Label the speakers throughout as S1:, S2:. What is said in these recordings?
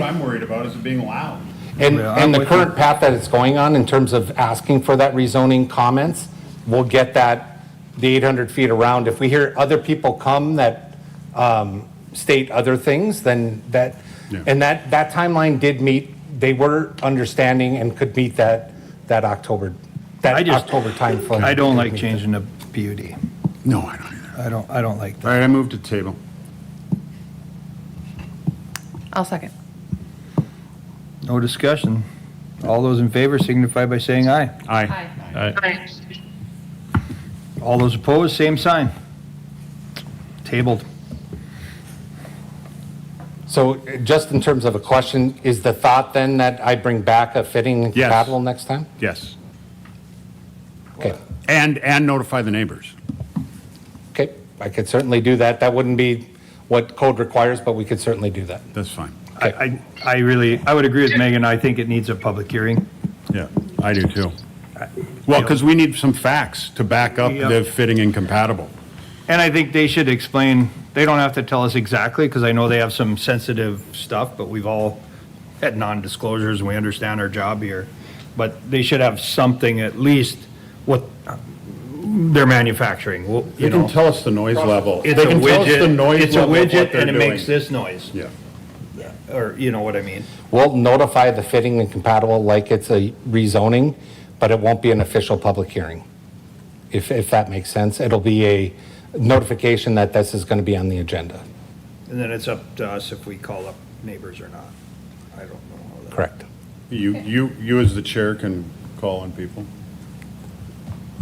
S1: What I'm worried about is it being loud.
S2: And,
S3: Yeah,
S2: and
S3: I'm
S2: the
S3: with you.
S2: current path that it's going on in terms of asking for that rezoning comments, we'll get that, the 800 feet around. If we hear other people come that um, state other things, then that,
S1: Yeah.
S2: and that, that timeline did meet, they were understanding and could meet that, that October,
S3: I
S2: that
S3: just-
S2: October timeframe.
S3: I don't like changing the PUD.
S1: No, I don't either.
S3: I don't, I don't like
S1: All
S3: that.
S1: right, I moved to the table.
S4: I'll second.
S3: No discussion. All those in favor signify by saying aye.
S1: Aye.
S3: All those opposed, same sign. Tabled.
S2: So uh, just in terms of a question, is the thought then that I bring back a fitting and
S1: Yes.
S2: compatible next time?
S1: Yes.
S2: Okay,
S1: And, and notify the neighbors.
S2: okay, I could certainly do that. That wouldn't be what code requires, but we could certainly do that.
S1: That's fine.
S3: I, I I really, I would agree with Megan. I think it needs a public hearing.
S1: Yeah, I do too. Well, because we need some facts to back up
S3: Yep.
S1: the fitting incompatible.
S3: And I think they should explain, they don't have to tell us exactly, because I know they have some sensitive stuff, but we've all had non-disclosures, and we understand our job here. But they should have something at least what they're manufacturing, well,
S1: They
S3: you
S1: can
S3: know.
S1: tell us the noise level.
S3: It's
S1: They
S3: a
S1: can tell us the
S3: widget,
S1: noise
S3: it's a
S1: level of what
S3: widget,
S1: they're
S3: and it
S1: doing.
S3: makes this noise,
S1: Yeah,
S3: or, you know what I mean?
S2: We'll notify the fitting and compatible like it's a rezoning, but it won't be an official public hearing. If, if that makes sense, it'll be a notification that this is going to be on the agenda.
S3: And then it's up to us if we call up neighbors or not. I don't know. how that-
S2: Correct.
S1: you, you, you as the chair can call on people.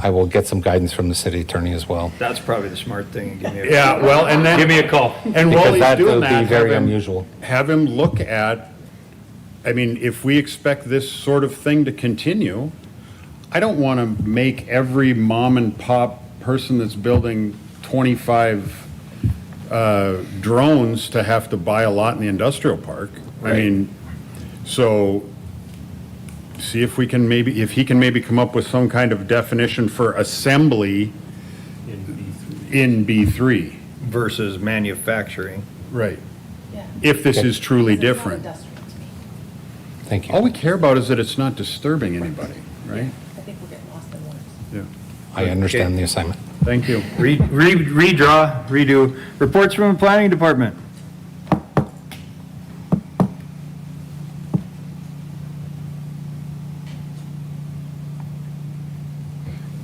S2: I will get some guidance from the city attorney as well.
S3: That's probably the smart thing. Give me a-
S1: Yeah, well, and then.
S3: Give me a call.
S1: And
S2: Because
S1: while he's
S2: that
S1: doing
S2: would be
S1: that. have
S2: very
S1: him-
S2: unusual.
S1: Have him look at, I mean, if we expect this sort of thing to continue, I don't want to make every mom and pop person that's building 25 uh, drones to have to buy a lot in the industrial park. I mean, so see if we can maybe, if he can maybe come up with some kind of definition for assembly in B3.
S3: Versus manufacturing.
S1: Right. If this is truly different.
S4: Industrial to me.
S2: Thank
S1: All
S2: you.
S1: we care about is that it's not disturbing anybody, right?
S4: I think we're getting lost in words.
S1: Yeah.
S2: I understand the assignment.
S1: Thank you.
S3: Re- re- Redraw, redo. Reports from the planning department.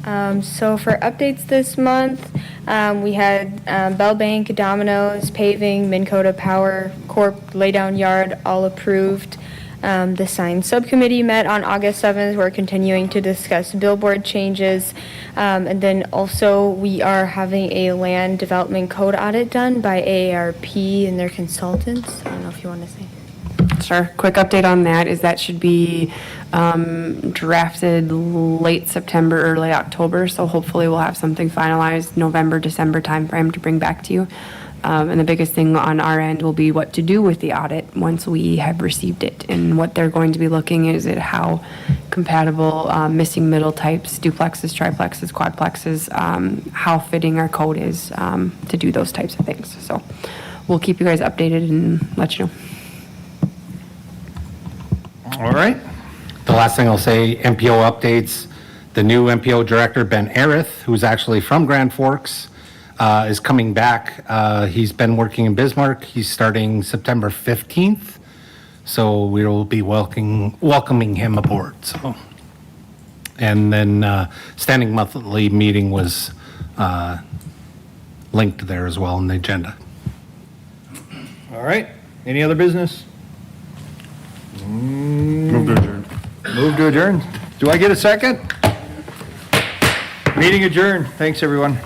S5: Um, so for updates this month, um, we had um, Bell Bank, Domino's, Paving, Minn Kota Power Corp, Laydown Yard, all approved. Um, the sign subcommittee met on August 7th. We're continuing to discuss billboard changes. Um, and then also, we are having a land development code audit done by AARP and their consultants. I don't know if you want to say.
S6: Sure. Quick update on that is that should be um, drafted late September, early October. So hopefully we'll have something finalized November, December timeframe to bring back to you. Um, And the biggest thing on our end will be what to do with the audit once we have received it. And what they're going to be looking is at how compatible um, missing middle types, duplexes, triplexes, quadplexes, um, how fitting our code is um, to do those types of things. So we'll keep you guys updated and let you know.
S3: All right.
S2: The last thing I'll say, MPO updates, the new MPO director, Ben Arith, who's actually from Grand Forks, uh, is coming back. Uh, He's been working in Bismarck. He's starting September 15th. So we will be welcoming, welcoming him aboard, so. And then uh, standing monthly meeting was uh, linked there as well in the agenda.
S3: All right. Any other business? Mm.
S1: Move to adjourn.
S3: Move to adjourn. Do I get a second? Meeting adjourned. Thanks, everyone.